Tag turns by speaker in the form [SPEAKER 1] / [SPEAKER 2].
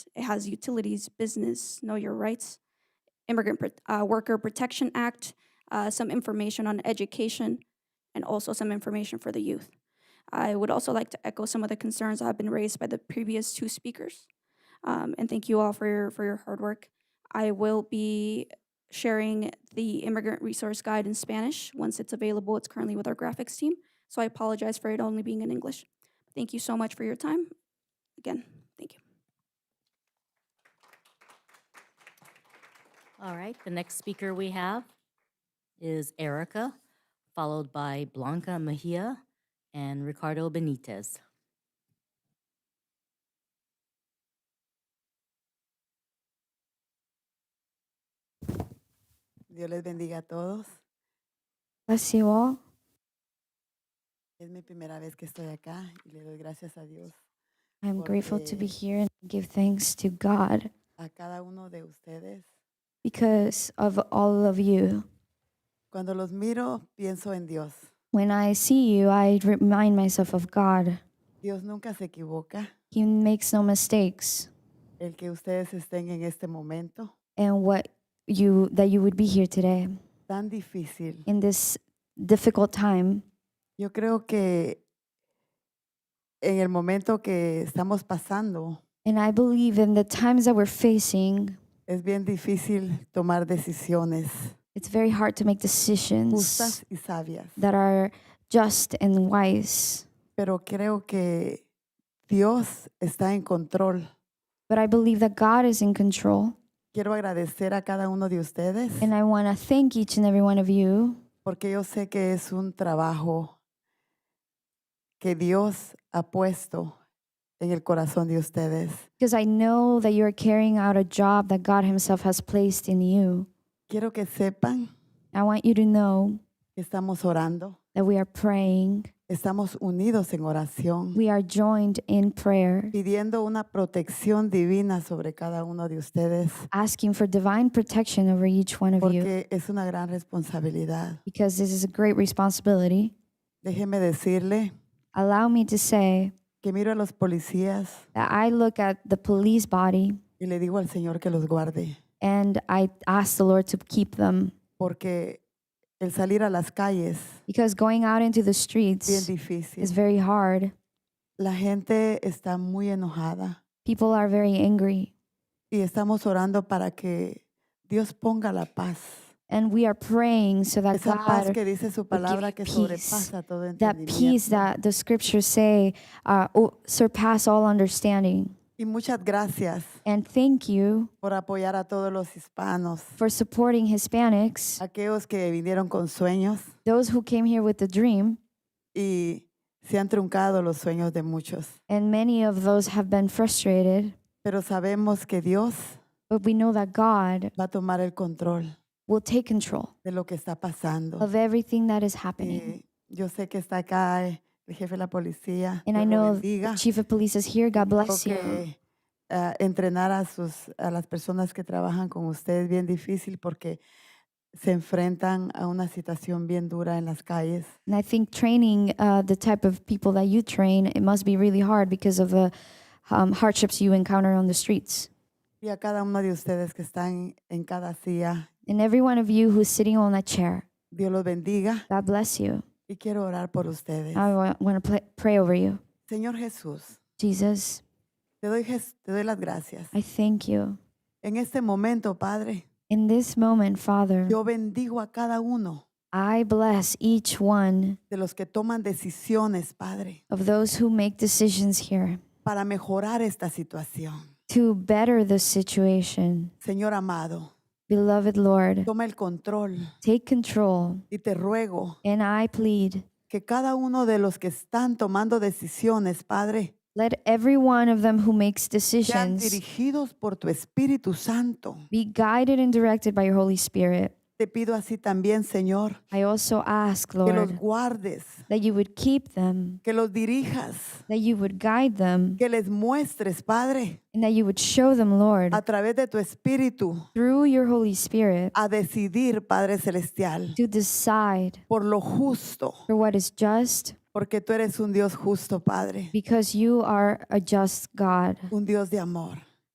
[SPEAKER 1] It has utilities, business, know your rights, immigrant Pro- uh, worker protection act, uh, some information on education, and also some information for the youth. I would also like to echo some of the concerns that have been raised by the previous two speakers. Um, and thank you all for your, for your hard work. I will be sharing the immigrant resource guide in Spanish once it's available. It's currently with our graphics team. So I apologize for it only being in English. Thank you so much for your time. Again, thank you.
[SPEAKER 2] All right, the next speaker we have is Erica, followed by Blanca Mejia and Ricardo Benitez.
[SPEAKER 3] Dios les bendiga a todos.
[SPEAKER 4] Bless you all.
[SPEAKER 3] Es mi primera vez que estoy acá y le doy gracias a Dios,
[SPEAKER 4] I'm grateful to be
[SPEAKER 3] Porque-
[SPEAKER 4] here and give thanks to God
[SPEAKER 3] a cada uno de ustedes.
[SPEAKER 4] because of all of you.
[SPEAKER 3] Cuando los miro, pienso en Dios.
[SPEAKER 4] When I see you, I remind myself of God.
[SPEAKER 3] Dios nunca se equivoca.
[SPEAKER 4] He makes no mistakes.
[SPEAKER 3] El que ustedes estén en este momento
[SPEAKER 4] And what you that you would be here today
[SPEAKER 3] tan difícil.
[SPEAKER 4] in this difficult time.
[SPEAKER 3] Yo creo que en el momento que estamos pasando,
[SPEAKER 4] And I believe in the times that we're facing,
[SPEAKER 3] es bien difícil tomar decisiones
[SPEAKER 4] it's very hard to make decisions
[SPEAKER 3] justas y sabias.
[SPEAKER 4] that are just and wise.
[SPEAKER 3] Pero creo que Dios está en control.
[SPEAKER 4] But I believe that God is in control.
[SPEAKER 3] Quiero agradecer a cada uno de ustedes.
[SPEAKER 4] And I want to thank each and every one of you
[SPEAKER 3] porque yo sé que es un trabajo que Dios ha puesto en el corazón de ustedes.
[SPEAKER 4] Because I know that you're carrying out a job that God Himself has placed in you.
[SPEAKER 3] Quiero que sepan
[SPEAKER 4] I want you to know
[SPEAKER 3] que estamos orando,
[SPEAKER 4] that we are praying,
[SPEAKER 3] estamos unidos en oración,
[SPEAKER 4] we are joined in prayer,
[SPEAKER 3] pidiendo una protección divina sobre cada uno de ustedes,
[SPEAKER 4] asking for divine protection over each one of you,
[SPEAKER 3] porque es una gran responsabilidad.
[SPEAKER 4] because this is a great responsibility.
[SPEAKER 3] Déjeme decirle
[SPEAKER 4] Allow me to say
[SPEAKER 3] que miro a los policías
[SPEAKER 4] that I look at the police body
[SPEAKER 3] y le digo al Señor que los guarde,
[SPEAKER 4] and I ask the Lord to keep them,
[SPEAKER 3] porque el salir a las calles
[SPEAKER 4] because going out into the
[SPEAKER 3] es bien
[SPEAKER 4] streets
[SPEAKER 3] difícil.
[SPEAKER 4] is very hard.
[SPEAKER 3] La gente está muy enojada.
[SPEAKER 4] People are very angry,
[SPEAKER 3] y estamos orando para que Dios ponga la paz.
[SPEAKER 4] and we are praying so that
[SPEAKER 3] Esa paz
[SPEAKER 4] God
[SPEAKER 3] que dice su palabra que
[SPEAKER 4] peace,
[SPEAKER 3] sobrepasa todo
[SPEAKER 4] that peace
[SPEAKER 3] entendimiento.
[SPEAKER 4] that the scriptures say uh, o- surpass all understanding.
[SPEAKER 3] Y muchas gracias
[SPEAKER 4] And thank you
[SPEAKER 3] por apoyar a todos los hispanos,
[SPEAKER 4] for supporting Hispanics, uh,
[SPEAKER 3] aquellos que vinieron con sueños
[SPEAKER 4] those who came here with the dream,
[SPEAKER 3] y se han truncado los sueños de muchos.
[SPEAKER 4] and many of those have been frustrated.
[SPEAKER 3] Pero sabemos que Dios
[SPEAKER 4] But we know that God
[SPEAKER 3] va a tomar el control
[SPEAKER 4] will take control
[SPEAKER 3] de lo que está pasando.
[SPEAKER 4] of everything that is happening.
[SPEAKER 3] Y yo sé que está acá eh, el jefe de la policía.
[SPEAKER 4] And I
[SPEAKER 3] Dios lo
[SPEAKER 4] know
[SPEAKER 3] bendiga.
[SPEAKER 4] the chief of police is here. God
[SPEAKER 3] Creo
[SPEAKER 4] bless you.
[SPEAKER 3] que ah, entrenar a, sus, a las personas que trabajan con ustedes es bien difícil porque se enfrentan a una situación bien dura en las calles.
[SPEAKER 4] And I think training uh, the type of people that you train, it must be really hard because of the um, hardships you encounter on the streets.
[SPEAKER 3] Y a cada uno de ustedes que están en cada silla,
[SPEAKER 4] And every one of you who's sitting on that chair,
[SPEAKER 3] Dios los bendiga
[SPEAKER 4] God bless you.
[SPEAKER 3] y quiero orar por ustedes.
[SPEAKER 4] I want to pray over you.
[SPEAKER 3] Señor Jesús,
[SPEAKER 4] Jesus,
[SPEAKER 3] te doy, jes- te doy las gracias.
[SPEAKER 4] I thank you.
[SPEAKER 3] En este momento, Padre,
[SPEAKER 4] In this moment, Father,
[SPEAKER 3] yo bendigo a cada uno
[SPEAKER 4] I bless each one
[SPEAKER 3] de los que toman decisiones, Padre,
[SPEAKER 4] of those who make decisions here
[SPEAKER 3] para mejorar esta situación.
[SPEAKER 4] to better the situation.
[SPEAKER 3] Señor amado,
[SPEAKER 4] Beloved Lord,
[SPEAKER 3] toma el control.
[SPEAKER 4] take control.
[SPEAKER 3] Y te ruego
[SPEAKER 4] And I plead,
[SPEAKER 3] que cada uno de los que están tomando decisiones, Padre,
[SPEAKER 4] let every one of them who makes
[SPEAKER 3] sean
[SPEAKER 4] decisions
[SPEAKER 3] dirigidos por tu Espíritu Santo.
[SPEAKER 4] be guided and directed by your Holy Spirit.
[SPEAKER 3] Te pido así también, Señor,
[SPEAKER 4] I also ask,
[SPEAKER 3] que los
[SPEAKER 4] Lord,
[SPEAKER 3] guardes,
[SPEAKER 4] that you would keep them,
[SPEAKER 3] que los dirijas,
[SPEAKER 4] that you would guide them,
[SPEAKER 3] que les muestres, Padre,
[SPEAKER 4] and that you would show them, Lord,
[SPEAKER 3] a través de tu Espíritu,
[SPEAKER 4] through your Holy Spirit
[SPEAKER 3] a decidir, Padre Celestial,
[SPEAKER 4] to decide
[SPEAKER 3] por lo justo,
[SPEAKER 4] for what is just
[SPEAKER 3] porque tú eres un Dios justo, Padre,
[SPEAKER 4] because you are a just God,
[SPEAKER 3] un Dios de amor.